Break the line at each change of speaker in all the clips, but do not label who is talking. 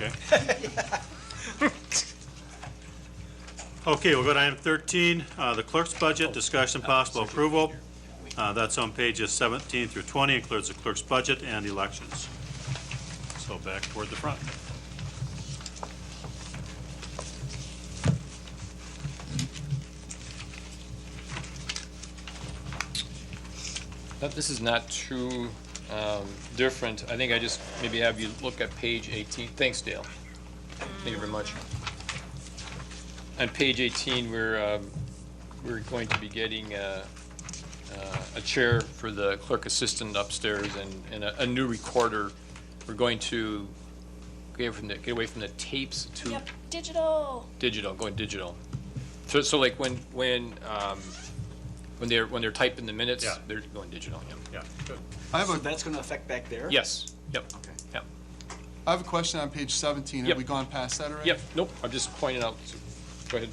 Okay. Okay, we'll go to item 13, uh, the clerk's budget, discussion possible approval. Uh, That's on pages 17 through 20, includes the clerk's budget and elections. So back toward the front.
But This is not too um, different. I think I just maybe have you look at page 18. Thanks, Dale. Thank you very much. On page 18, we're, um, we're going to be getting uh, uh, a chair for the clerk assistant upstairs and, and a a new recorder. We're going to get from the- get away from the tapes to
Yep, digital.
digital, going digital. So, so like when, when, um, when they're, when they're typing the minutes,
Yeah.
they're going digital, yeah.
Yeah, good.
I have
So
a,
that's going to affect back there?
Yes, yep,
Okay.
yep,
I have a question on page 17.
Yep.
Have we gone past that already?
yep, nope, I'm just pointing out, go ahead.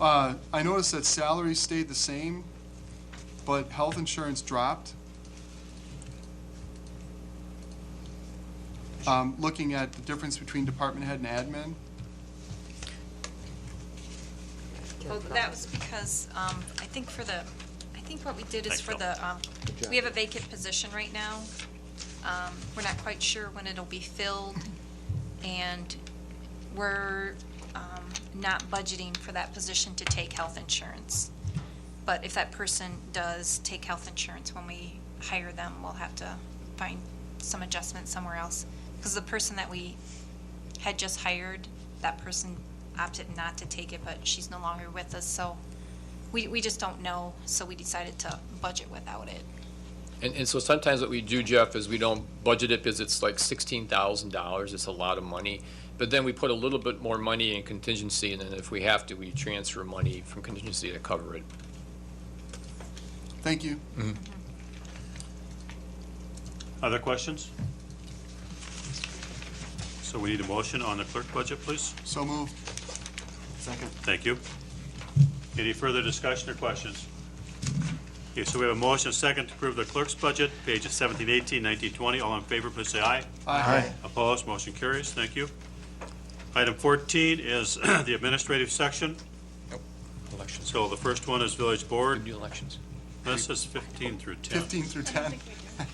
Uh, I noticed that salaries stayed the same, but health insurance dropped. Um, Looking at the difference between department head and admin,
Well, that was because, um, I think for the, I think what we did
Thanks,
is for
Bill.
the, um, we have a vacant position right now. Um, we're not quite sure when it'll be filled, and we're, um, not budgeting for that position to take health insurance. But if that person does take health insurance when we hire them, we'll have to find some adjustment somewhere else. Because the person that we had just hired, that person opted not to take it, but she's no longer with us, so we, we just don't know, so we decided to budget without it.
And, and so sometimes what we do, Jeff, is we don't budget it because it's like sixteen thousand dollars, it's a lot of money. But then we put a little bit more money in contingency, and then if we have to, we transfer money from contingency to cover it.
thank you.
Other questions? So we need a motion on the clerk budget, please.
So moved.
Second.
Thank you. Any further discussion or questions? Okay, so we have a motion, second, to approve the clerk's budget, pages 17, 18, 19, 20. All in favor, please say aye.
Aye.
Opposed, motion carries. Thank you. Item 14 is the administrative section.
Elections,
So the first one is village
do
board.
we do elections?
This is 15 through 10.
15 through 10.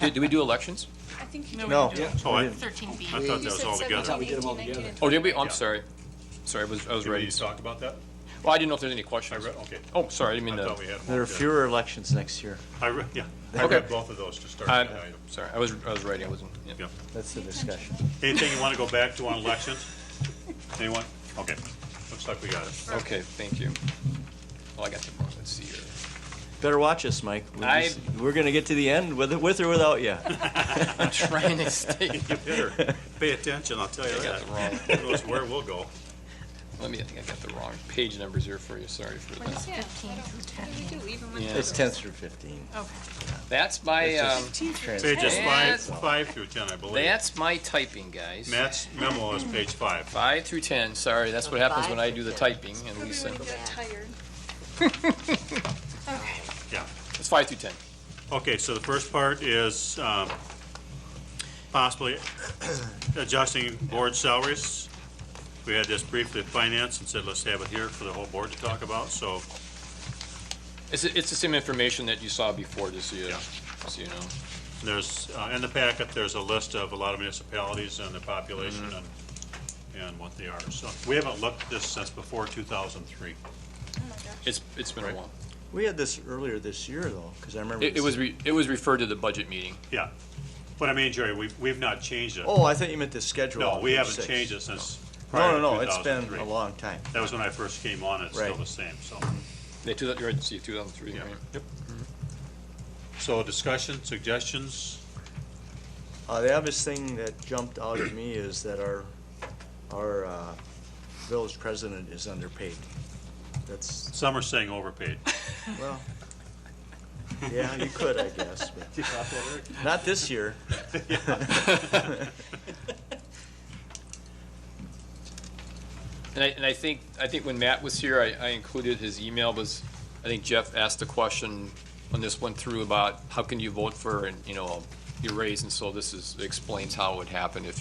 Do, do we do elections?
I think you
No.
Yeah.
Oh, I I
Thirteen B.
thought that was all together.
we did them all together.
Oh, did we, Oh, I'm
Yeah.
sorry, sorry, I was, I was
Did we
ready.
just talk about that?
Well, I didn't know if there's any
I
questions.
read, okay.
Oh, sorry, I
I
didn't mean to.
thought we had. them all
There are
together.
fewer elections next year.
I read, yeah. I
Okay. Uh,
read both of those to start
I'm
that item.
sorry, I was, I was ready, I wasn't, yeah.
Yeah.
That's the discussion.
Anything you want to go back to on elections? Anyone? Okay. Looks like we got it.
Okay, thank you. Well, I got the wrong, let's see here.
Better watch us, Mike. We're
I-
just- We're gonna get to the end with, with or without you.
I'm trying to stay,
You better pay attention, I'll tell you
I got
that.
the wrong,
Who knows where we'll go?
let me, I think I got the wrong page numbers here for you, sorry for that. Yeah.
It's ten through fifteen.
That's my, um,
Pages five,
Yes.
five through 10, I believe.
that's my typing, guys.
Matt's memo is page five.
Five through 10, sorry, that's what happens when I do the typing and we send.
tired.
Yeah.
It's five through 10.
Okay, so the first part is um, possibly adjusting board salaries. We had this briefly at finance and said, let's have it here for the whole board to talk about, so
It's, it's the same information that you saw before, just so you, so you know.
There's, uh, in the packet, there's a list of a lot of municipalities and their population and,
Mm-hmm.
and what they are. So we haven't looked at this since before 2003.
It's, it's been a
Right.
while.
We had this earlier this year though, because I remember.
It, it
this-
was, re- it was referred to the budget meeting.
Yeah. But I mean, Jerry, we've, we've not changed it.
Oh, I thought you meant the schedule.
No,
on
we
page
haven't
six.
changed it since prior
No,
to
no, no, it's been
2003.
a long time.
That was when I first came on, it's still
Right.
the same, so.
They, two, you're right, see, 2003,
Yeah.
right? Yep.
So discussion, suggestions?
Uh, the obvious thing that jumped out at me is that our, our, uh, village president is underpaid. That's,
Some are saying overpaid.
well, yeah, you could, I guess, but not this year.
And I, and I think, I think when Matt was here, I, I included his email was, I think Jeff asked the question when this went through about how can you vote for, and, you know, your raise, and so this is, explains how it would happen if